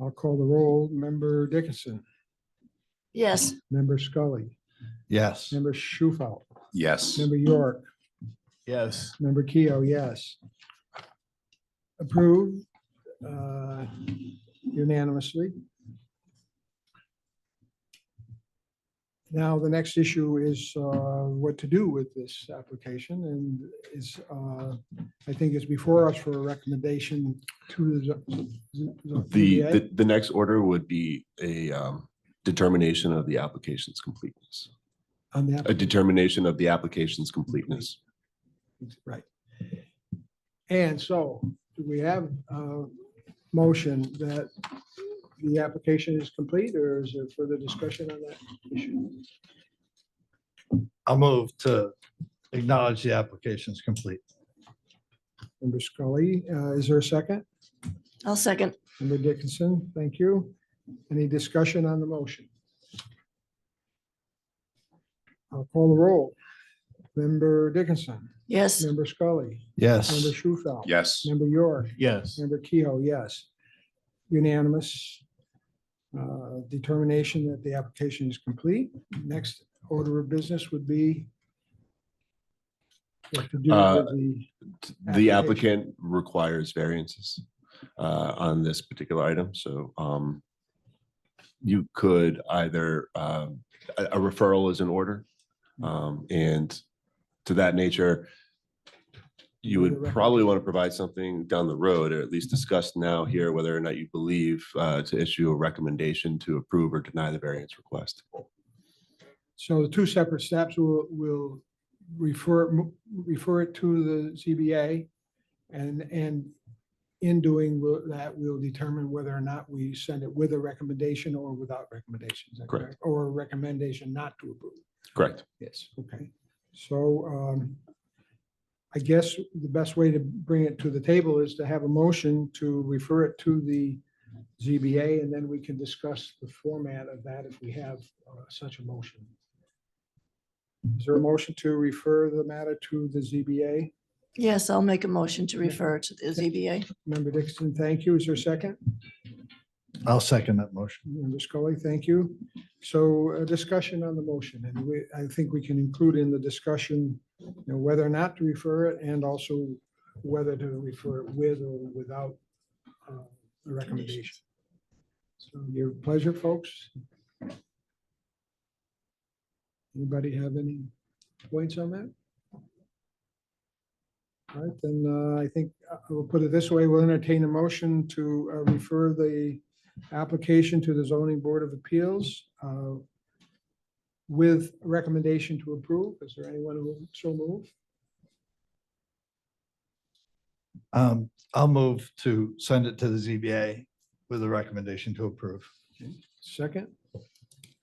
I'll call the roll. Member Dickinson, Yes. member Scully, Yes. member Shufel, Yes. member York, Yes. member Keough, yes. Approved uh, unanimously. Now, the next issue is uh, what to do with this application and is, uh, I think is before us for a recommendation to the. z- z- z- The, ZBA. the, the next order would be a um, determination of the application's completeness, On the, app- a determination of the application's completeness. right. And so do we have a motion that the application is complete or is there further discussion on that issue? I'll move to acknowledge the application is complete. Member Scully, uh, is there a second? I'll second. Member Dickinson, thank you. Any discussion on the motion? I'll call the roll. Member Dickinson, Yes. member Scully, Yes. member Shufel. Yes. Member York, Yes. Member Kehoe, yes. Unanimous uh, determination that the application is complete. Next order of business would be what to do Uh, with the, The applicant requires variances uh, on this particular item, so um, you could either, um, a a referral is in order. um, And to that nature, you would probably want to provide something down the road, or at least discuss now here whether or not you believe uh, to issue a recommendation to approve or deny the variance request. so the two separate steps will, will refer, refer it to the CBA. And, and in doing will- that, we'll determine whether or not we send it with a recommendation or without recommendations. Correct. Or a recommendation not to approve. Correct. Yes. Okay, so um, I guess the best way to bring it to the table is to have a motion to refer it to the ZBA, and then we can discuss the format of that if we have uh, such a motion. Is there a motion to refer the matter to the ZBA? Yes, I'll make a motion to refer to the ZBA. Member Dixon, thank you. Is there a second? I'll second that motion. Member Scully, thank you. So a discussion on the motion, and we, I think we can include in the discussion you know, whether or not to refer it and also whether to refer it with or without uh, a recommendation. So your pleasure, folks. Anybody have any points on that? All right, then uh, I think uh, we'll put it this way. We'll entertain a motion to uh, refer the application to the zoning board of appeals uh, with recommendation to approve. Is there anyone who would so move? Um, I'll move to send it to the ZBA with a recommendation to approve. Second,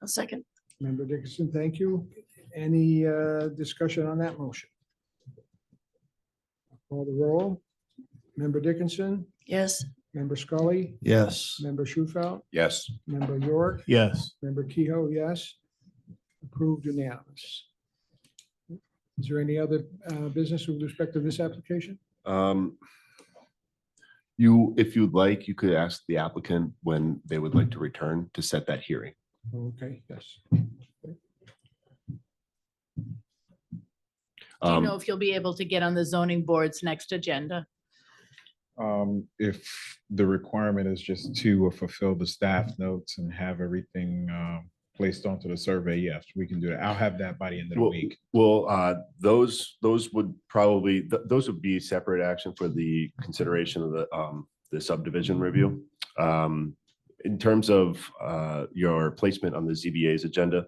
I'll second. member Dickinson, thank you. Any uh, discussion on that motion? Call the roll. Member Dickinson, Yes. member Scully, Yes. member Shufel, Yes. member York, Yes. member Kehoe, yes. Approved unanimous. Is there any other uh, business with respect to this application? Um, You, if you'd like, you could ask the applicant when they would Mm-hmm. like to return to set that hearing. Okay, yes. Do you Um, know if you'll be able to get on the zoning board's next agenda? Um, if the requirement is just to uh, fulfill the staff notes and have everything, um, placed onto the survey, yes, we can do that. I'll have that by the end of the Well- week. Well, uh, those, those would probably, th- those would be separate action for the consideration of the, um, the subdivision review. Um, in terms of, uh, your placement on the ZBA's agenda,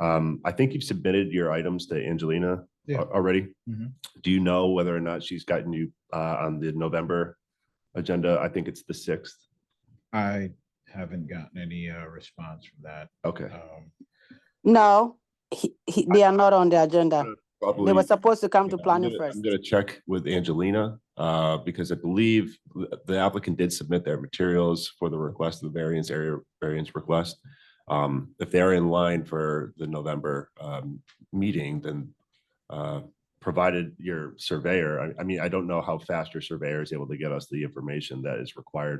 um, I think you've submitted your items to Angelina al- Yeah. already. Mhm. Do you know whether or not she's gotten you, uh, on the November agenda? I think it's the sixth. I haven't gotten any, uh, response from that. Okay. Um, No, he, he, they are not on the agenda. They Probably- were supposed to come to Yeah, I'm planning gonna- first. I'm gonna check with Angelina, uh, because I believe th- the applicant did submit their materials for the request, the variance area, variance request. Um, if they're in line for the November, um, meeting, then, uh, provided your surveyor, I, I mean, I don't know how fast your surveyor is able to get us the information that is required